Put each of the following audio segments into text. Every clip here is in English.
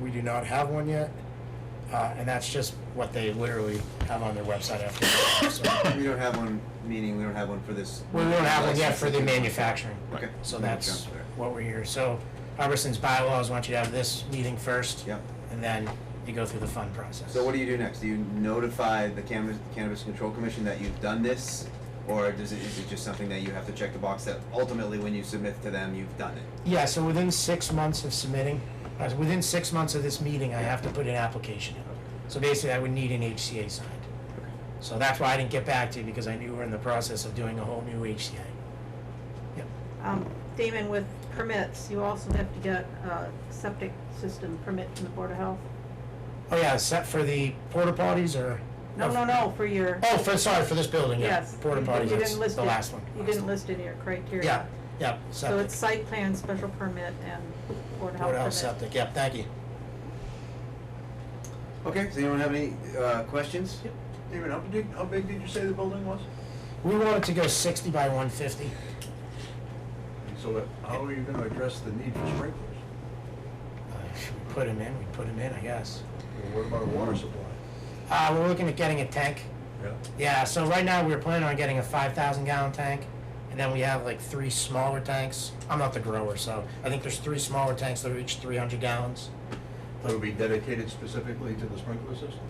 We do not have one yet. Uh, and that's just what they literally have on their website after. So We don't have one, meaning we don't have one for this. we don't have one yet for the manufacturing. Okay. So that's Okay. what we're here. So Hubbard's bylaws want you to have this meeting first. Yep. And then you go through the fund process. So what do you do next? Do you notify the cannabis, cannabis control commission that you've done this? Or does it, is it just something that you have to check the box that ultimately when you submit to them, you've done it? Yeah, so within six months of submitting, uh, within six months of this meeting, I have to put an application in. So basically, I would need an HCA signed. So that's why I didn't get back to you, because I knew we were in the process of doing a whole new HCA. Yep. Um, Damon, with permits, you also have to get a septic system permit from the Board of Health. Oh, yeah, set for the porta potties or? No, no, no, for your, Oh, for, sorry, for this building, yeah. yes. Porta you- you potties, didn't that's list the it. last one. You didn't list it in your criteria. Yeah, yeah, So it's septic, site plan, special permit, and Board Board of of Health permit. Health septic, yep, thank you. Okay, does anyone have any, uh, questions? David, how big, how big did you say the building was? We wanted to go sixty by one fifty. And So that- how are you gonna address the need for sprinklers? We Uh, put them in, we put them in, I guess. Or What about a water supply? Uh, we're looking at getting a tank. Yeah. Yeah, so right now we're planning on getting a five thousand gallon tank, and then we have like three smaller tanks. I'm not the grower, so I think there's three smaller tanks that are each three hundred gallons. It'll be dedicated specifically to the sprinkler system?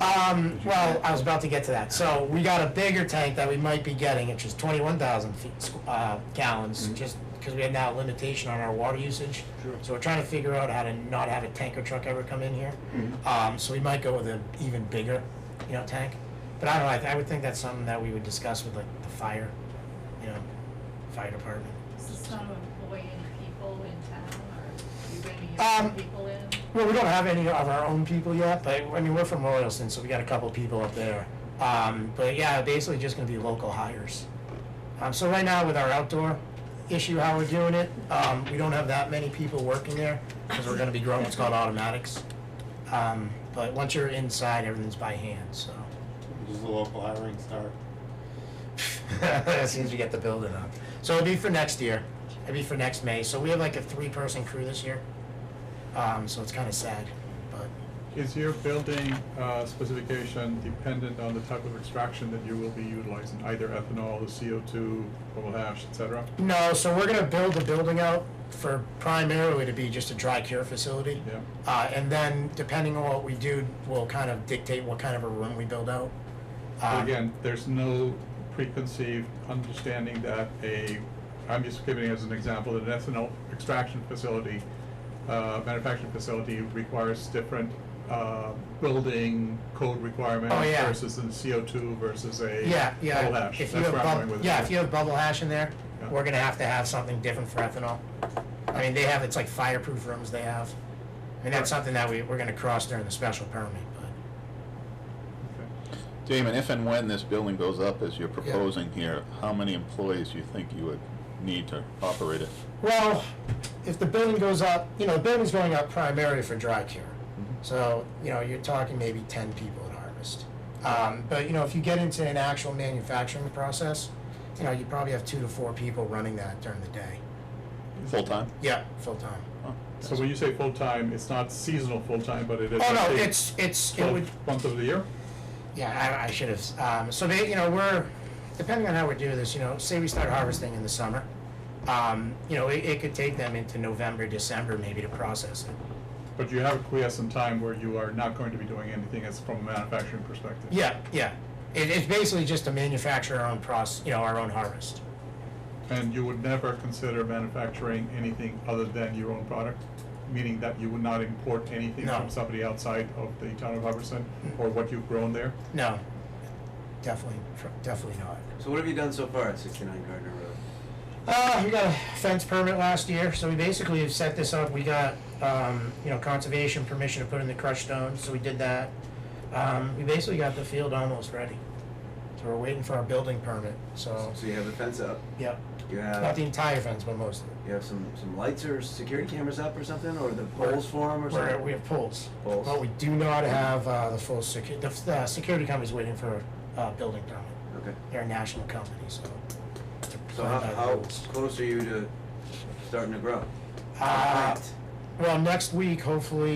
Um, well, I was about to get to that. So we got a bigger tank that we might be getting, which is twenty-one thousand feet, squ- uh, gallons, Mhm. just because we have now a limitation on our water usage. Sure. So we're trying to figure out how to not have a tanker truck ever come in here. Mm-hmm. Um, so we might go with an even bigger, you know, tank. But I don't know, I, th- I would think that's something that we would discuss with like the fire, you know, fire department. Is this not to employ any people in town, or you bring any Um, young people in? Well, we don't have any of our own people yet, but I mean, we're from Royalston, so we got a couple people up there. Um, but yeah, basically just gonna be local hires. Um, so right now with our outdoor issue, how we're doing it, um, we don't have that many people working there because we're gonna be growing what's called automatics. Um, but once you're inside, everything's by hand, so. Does the local hiring start? as soon as we get the building up. So it'll be for next year. It'll be for next May. So we have like a three-person crew this year. Um, so it's kind of sad, but Is your building uh, specification dependent on the type of extraction that you will be utilizing, either ethanol, the CO2, coal ash, et cetera? No, so we're gonna build the building out for primarily to be just a dry cure facility. Yeah. Uh, and then depending on what we do, will kind of dictate what kind of a room we build out. But Um, again, there's no preconceived understanding that a, I'm just giving as an example, an ethanol extraction facility, uh, manufacturing facility requires different uh, building code requirements Oh, yeah. versus a CO2 versus a Yeah, coal yeah. ash. If That's you have where I'm going bubble, with it. yeah, if you have bubble hash in there, Yeah. we're gonna have to have something different for ethanol. I mean, they have, it's like fireproof rooms they have. I mean, that's something that we, we're gonna cross during the special permit, but, Okay. Damon, if and when this building goes up as you're proposing here, how many employees do you think you would need to operate it? well, if the building goes up, you know, the building's going up primarily for dry cure. So, you know, you're talking maybe ten people at harvest. Um, but, you know, if you get into an actual manufacturing process, you know, you probably have two to four people running that during the day. Full-time? Yeah, full-time. Oh, So when you say full-time, it's not seasonal full-time, but it is. Oh, I no, think, it's, it's, it would, 12 months of the year? Yeah, I, I should have. Um, so they, you know, we're depending on how we do this. You know, say we start harvesting in the summer. Um, you know, it, it could take them into November, December, maybe to process it. But you have a quiescent time where you are not going to be doing anything as from a manufacturing perspective. Yeah, yeah. It, it's basically just to manufacture our own process, you know, our own harvest. And you would never consider manufacturing anything other than your own product? Meaning that you would not import anything No. from somebody outside of the town of Hubbardston or what you've grown there? No, definitely, tr- definitely not. So what have you done so far at sixty-nine Gardner Road? Uh, we got a fence permit last year, so we basically have set this up. We got, um, you know, conservation permission to put in the crushed stone, so we did that. Um, we basically got the field almost ready. So we're waiting for our building permit, so, Oh, So you have the fence up, yep. you Not have, the entire fence, but most of it. you have some, some lights or security cameras up or something, or the poles for 'em or We're, something? we have poles. Poles. But we do not have, uh, the full secu, the, the security company's waiting for, uh, building permit. Okay, They're a national company, so. they're so how, bound by how rules. close are you to starting to grow? Uh, Plant. well, next week, hopefully,